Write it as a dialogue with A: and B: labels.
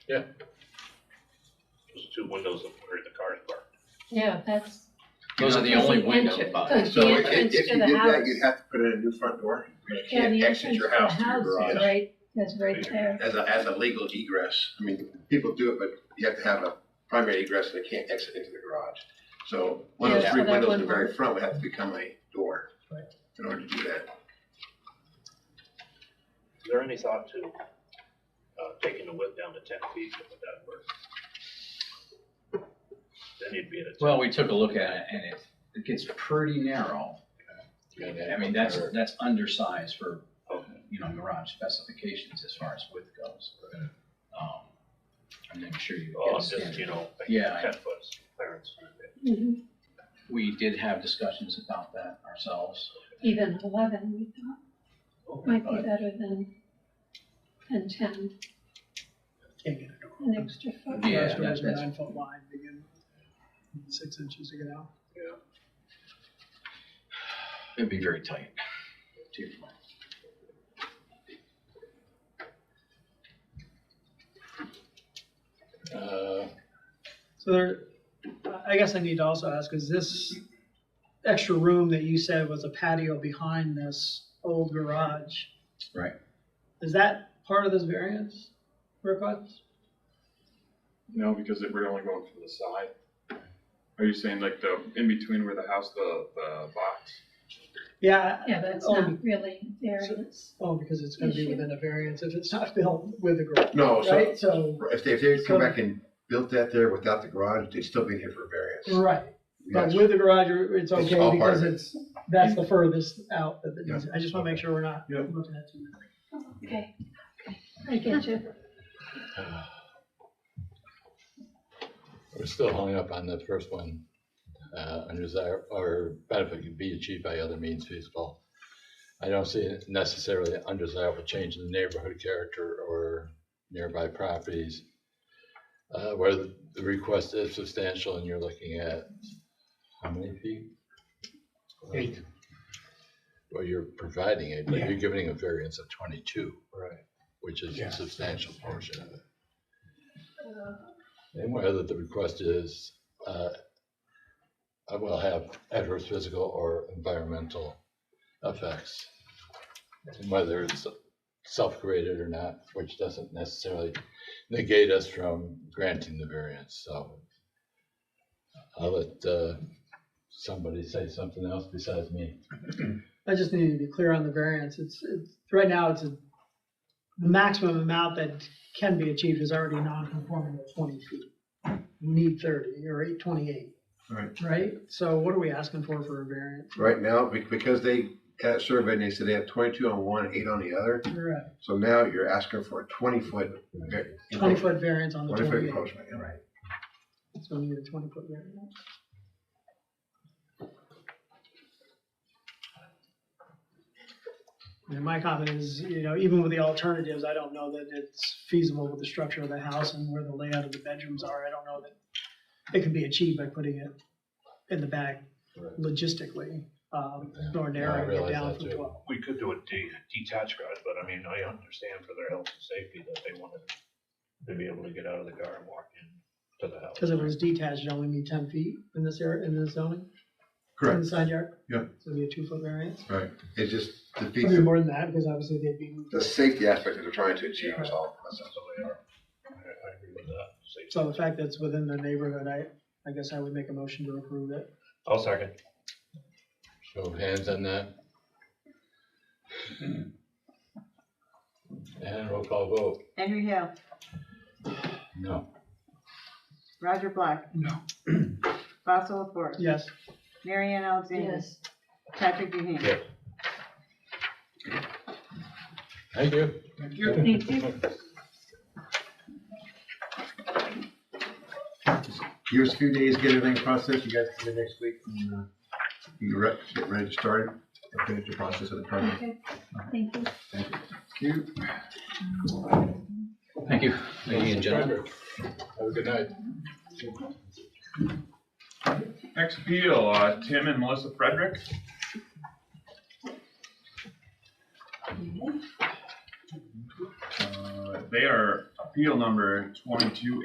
A: There's two windows up where the car's parked.
B: Yeah, that's,
C: Those are the only
B: Because you
C: windows
B: mentioned-
C: by.
B: because
D: So
B: The
D: if,
B: entrance
D: if
B: to
D: you
B: the
D: did that,
B: house.
D: you'd have to put in a new front door. You
B: yeah,
D: can't
B: the
D: exit
B: entrance to
D: your
B: the
D: house to
B: house
D: your
B: is
D: garage
B: right, is right there.
D: as a, as a legal egress. I mean, people do it, but you have to have a primary egress and they can't exit into the garage. So one of
B: Yeah,
D: those
B: so
D: three
B: that
D: windows in the
B: wouldn't
D: very
B: work.
D: front would have to become a door in order to do that.
A: Is there any thought to, uh, taking the width down to ten feet, would that work? Then you'd be at a. 10.
C: Well, we took a look at it and it, it gets pretty narrow. I mean, that's, that's undersized for, you know, garage specifications as far as width goes. Um, I'm not sure you
A: Well,
C: get a
A: I'm just, you
C: standard.
A: know, like
C: Yeah, I-
A: ten foot clearance.
B: Mhm.
C: We did have discussions about that ourselves.
B: Even eleven, we thought,
A: Oh,
B: might be better than, than ten,
E: Can't get
B: an
E: it.
B: extra foot.
C: Yeah,
E: Garage doors
C: that's-
E: are
C: that's-
E: nine foot wide, they get six inches to get out.
C: It'd be very tight. to your point.
D: Uh,
E: So there, I- I guess I need to also ask, is this extra room that you said was a patio behind this old garage?
C: Right.
E: Is that part of this variance request?
F: No, because it- we're only going from the side. Are you saying like the, in between where the house, the, the box?
E: Yeah.
B: Yeah, that's
E: oh,
B: not really variance.
E: Oh, because it's gonna be
B: Issue.
E: within a variance if it's not built with a garage,
C: Oh,
D: No, so
E: right? So,
D: if they, if they come back and built that there without the garage, they'd still be here for a variance.
E: right, but
D: Yes.
E: with the garage, it's
D: It's all
E: okay
D: part
E: because
D: of it.
E: it's, that's the furthest out that it
D: Yeah.
E: is. I just wanna make sure we're not
D: Yeah.
E: looking at too much.
B: Okay, I get you.
G: We're still hung up on the first one, uh, undesirable, or benefit can be achieved by other means feasible. I don't see it necessarily an undesirable change in the neighborhood character or nearby properties. Uh, where the the request is substantial and you're looking at how many feet? Eight. Well, you're providing it, but you're giving a variance of twenty-two. Right. Which is a substantial portion of it. And whether the request is, uh, I will have adverse physical or environmental effects. And whether it's self-created or not, which doesn't necessarily negate us from granting the variance, so. I'll let, uh, somebody say something else besides me.
E: I just need to be clear on the variance. It's, it's, right now, it's a, the maximum amount that can be achieved is already non-conforming at twenty feet. You Need thirty or eight twenty-eight,
D: Right.
E: right? So what are we asking for for a variance?
D: Right now, be- because they had a survey and they said they have twenty-two on one, eight on the other.
E: Right.
D: So now you're asking for a twenty-foot.
E: Twenty foot variance on the
D: Twenty-foot
E: twenty-eight.
D: encroachment, yeah.
E: Right. So we need a twenty foot variance. And my comment is, you know, even with the alternatives, I don't know that it's feasible with the structure of the house and where the layout of the bedrooms are. I don't know that it can be achieved by putting it in the back logistically, um,
G: Yeah,
E: nor narrowing it
G: realize
E: down
G: that
E: from
G: too.
E: twelve.
A: We could do a de- detached garage, but I mean, I understand for their health and safety that they wanted to be able to get out of the car and walk in to the house.
E: Cause if it was detached, it'd only be ten feet in this area, in this zoning, in
D: Correct,
E: the side yard.
D: Yeah.
E: So it'd be a two foot variance.
D: right. It just
E: It'd
D: defeats
E: be
D: the
E: more than that, because obviously they'd be moved.
D: the safety aspect that they're trying to achieve is all.
A: So they are, I, I agree with that. Safety.
E: So the fact that it's within the neighborhood, I, I guess I would make a motion to approve it.
A: I'll second.
G: Show of hands on that. And roll call vote,
H: Andrew Hill,
G: no.
H: Roger Black. No. Fossil Laporte,
E: Yes,
H: Mary Ann Alexander,
B: Yes,
H: Patrick Duhane.
A: Yeah.
G: Thank you.
B: thank you.
D: Give us a few days, get everything processed. You guys can do it next week. and, uh, You re- get ready to start it and finish the process of the permit.
B: Okay, thank you.
C: Thank you, ladies and gentlemen.
G: Have a good night.
F: Next appeal, uh, Tim and Melissa Frederick. Uh, They are appeal number twenty-two